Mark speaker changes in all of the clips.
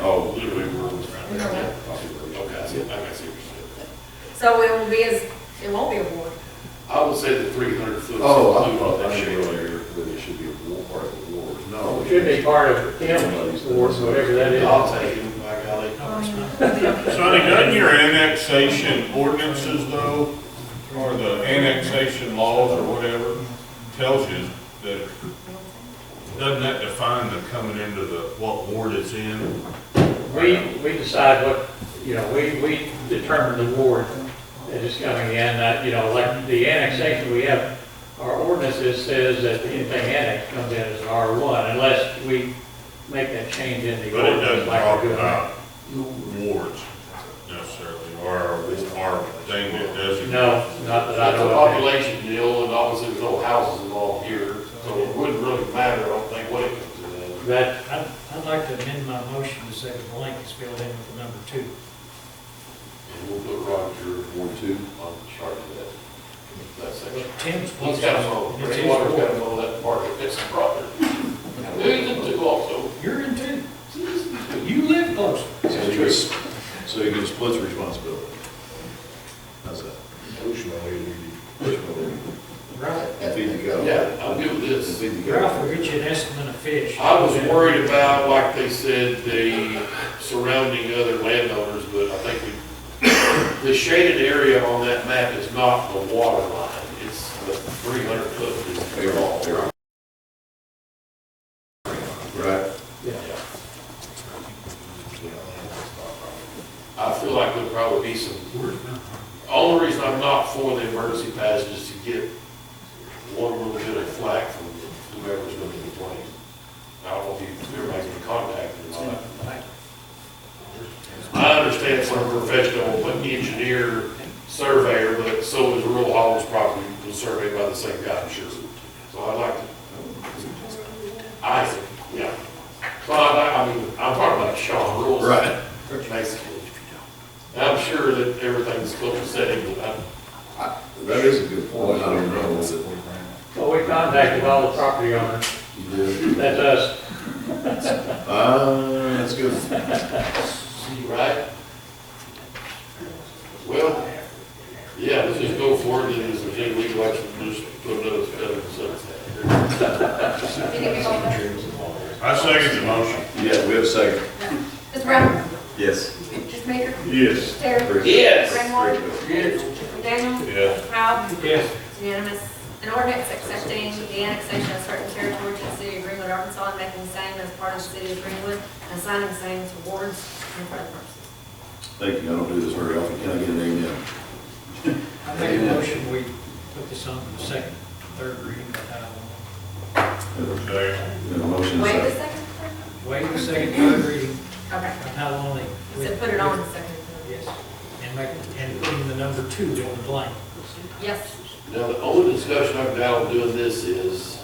Speaker 1: Oh,
Speaker 2: So it will be as, it won't be a ward.
Speaker 1: I would say the three hundred foot. is
Speaker 3: Oh, I
Speaker 1: included
Speaker 3: thought
Speaker 1: in that
Speaker 3: that should
Speaker 1: shape.
Speaker 3: earlier, that it should be a war, part of the war. Oh,
Speaker 4: Well,
Speaker 3: No.
Speaker 4: it Should be part of Hamlin's Ward, whatever that is.
Speaker 1: I'll take it, by golly.
Speaker 5: Sonny, doesn't your annexation ordinances though, or the annexation laws or whatever, tells you that, doesn't that define the coming into the, what ward it's in?
Speaker 4: We, we decide what, you know, we, we determine the ward that is coming in, that, you know, like the annexation we have, our ordinances says that anything annexed comes in as an R one unless we make that change in the
Speaker 5: But it
Speaker 4: ordinance
Speaker 5: doesn't
Speaker 4: like
Speaker 5: talk
Speaker 4: we're doing. now.
Speaker 5: about wards necessarily, or this our thing that doesn't.
Speaker 4: No, not that I
Speaker 1: That's a
Speaker 4: know of.
Speaker 1: population deal, and obviously there's no houses involved here, so it wouldn't really matter, I don't think, what it comes in. as.
Speaker 4: That,
Speaker 6: I'd, I'd like to amend my motion to say the blank is filled in with the number two.
Speaker 1: And we'll put Roger, one, two, on charge of that, that section.
Speaker 6: Tim's.
Speaker 1: He's got to mow,
Speaker 6: It's his
Speaker 1: Greenwater's got
Speaker 6: ward.
Speaker 1: to mow that part, it's a problem. Who's in two also?
Speaker 6: You're in two. You live close.
Speaker 3: So you can, s- so you can split the responsibility. How's that?
Speaker 6: Ralph,
Speaker 3: And feed the cow.
Speaker 1: Yeah, I'm good with
Speaker 3: And
Speaker 1: this.
Speaker 3: feed the
Speaker 6: Ralph
Speaker 3: cow.
Speaker 6: will get you an estimate of fish.
Speaker 1: I was worried about, like they said, the surrounding other landowners, but I think we, the shaded area on that map is not the water line, it's the three hundred foot is the draw.
Speaker 3: Right.
Speaker 1: I feel like there'll probably be some, only reason I'm not for the emergency passage is to get one little bit of flack from whoever's gonna be playing. I don't know if you, ever making contact or not. I understand some professional, but engineer, surveyor, but so is rural Hall's property was surveyed by the same guy, I'm sure. So I'd like to, I, yeah. So I, I mean, I'm talking about Sean Rules.
Speaker 3: Right.
Speaker 1: Basically. And I'm sure that everything's close to setting, but I'm-
Speaker 3: I- That is a good point. I don't know, is it?
Speaker 4: well, we contacted all the property owners,
Speaker 3: You did.
Speaker 4: that's us,
Speaker 3: Uh, that's good.
Speaker 1: right? Well, yeah, let's just go forward, and if there's any legal action, just put another spell in sunset.
Speaker 5: I second the motion.
Speaker 3: Yeah, we have a second.
Speaker 2: Mr. Brown?
Speaker 3: Yes.
Speaker 2: Mr. Baker?
Speaker 5: Yes.
Speaker 2: Terry?
Speaker 1: Yes.
Speaker 2: Raymore? McDaniel?
Speaker 5: Yeah.
Speaker 2: Powell?
Speaker 6: Yes.
Speaker 2: It's Unanimous. An ordinance accepting the annexation of certain territory to the city of Greenwood, Arkansas, and making the same as part of the city of Greenwood, and assigning the same to wards and for other purposes.
Speaker 3: Thank you. I don't do this very often. Can I get an amen?
Speaker 6: I make a motion, we put this on for the second, third reading by title only.
Speaker 5: Second.
Speaker 3: We have Uh, a motion.
Speaker 2: Wait a
Speaker 3: second.
Speaker 2: second.
Speaker 6: Waive the second, third reading
Speaker 2: Okay.
Speaker 6: by title only.
Speaker 2: You said put it on the second.
Speaker 6: Yes, and make, and put in the number two on the blank.
Speaker 2: Yes.
Speaker 1: Now, the only discussion I've got on doing this is,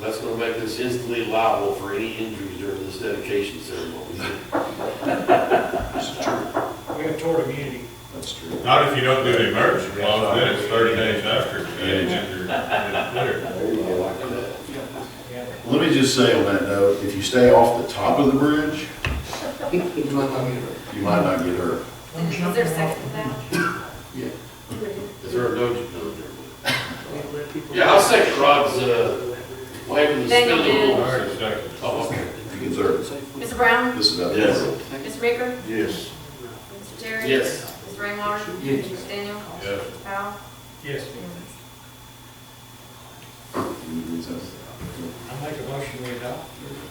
Speaker 1: that's gonna make this instantly liable for any injuries during this dedication ceremony.
Speaker 6: We have toward immunity.
Speaker 3: That's true.
Speaker 5: Not if you don't do the emergency clause, then it's thirty days after.
Speaker 3: There you go.
Speaker 1: Like that.
Speaker 6: Yeah.
Speaker 3: Let me just say on that note, if you stay off the top of the bridge, you might not get hurt.
Speaker 2: Is there a second to that?
Speaker 1: Yeah. Is there a no? no, there- Yeah, I'll second Rod's, uh, waiving the
Speaker 2: Then you
Speaker 1: spelling
Speaker 2: do.
Speaker 1: rules.
Speaker 5: Alright, second.
Speaker 1: Oh, okay.
Speaker 3: You can serve.
Speaker 2: Mr. Brown?
Speaker 3: This is about.
Speaker 1: Yes.
Speaker 2: Mr. Baker?
Speaker 5: Yes.
Speaker 2: Mr. Terry?
Speaker 1: Yes.
Speaker 2: Mr. Raymore?
Speaker 1: Yes.
Speaker 2: Mr. Daniel?
Speaker 5: Yes.
Speaker 2: Powell?
Speaker 6: Yes, I make a motion, we adopt.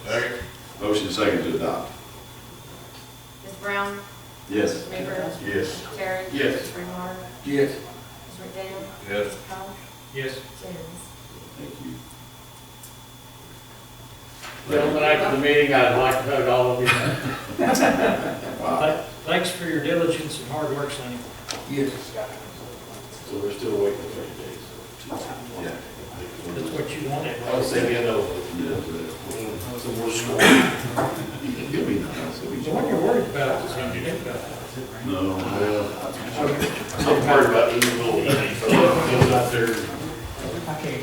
Speaker 5: Second.
Speaker 3: Motion second to adopt.
Speaker 2: Mr. Brown?
Speaker 3: Yes.
Speaker 2: Mr. Baker?
Speaker 5: Yes.
Speaker 2: Terry?
Speaker 1: Yes.
Speaker 2: Mr. Raymore?
Speaker 1: Yes.
Speaker 2: Mr. McDaniel?
Speaker 5: Yes.
Speaker 2: Powell?
Speaker 6: Yes.
Speaker 2: It's unanimous.
Speaker 3: Thank you.
Speaker 4: gentlemen, after the meeting, I'd like to hug all of you.
Speaker 3: Wow.
Speaker 6: Th- Thanks for your diligence and hard work, Sonny.
Speaker 1: So we're still waiting for thirty days.
Speaker 3: Yeah.
Speaker 6: That's what you wanted.
Speaker 1: I would say, you know, so we're scoring.
Speaker 3: It'll be nice. It'll be-
Speaker 6: The one you're worried about is gonna get about.
Speaker 3: No, well,
Speaker 1: I'm worried about even little things, so it goes out there.
Speaker 3: uh,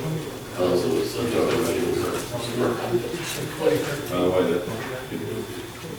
Speaker 1: Uh, so it's something that everybody will-
Speaker 3: by the way, that,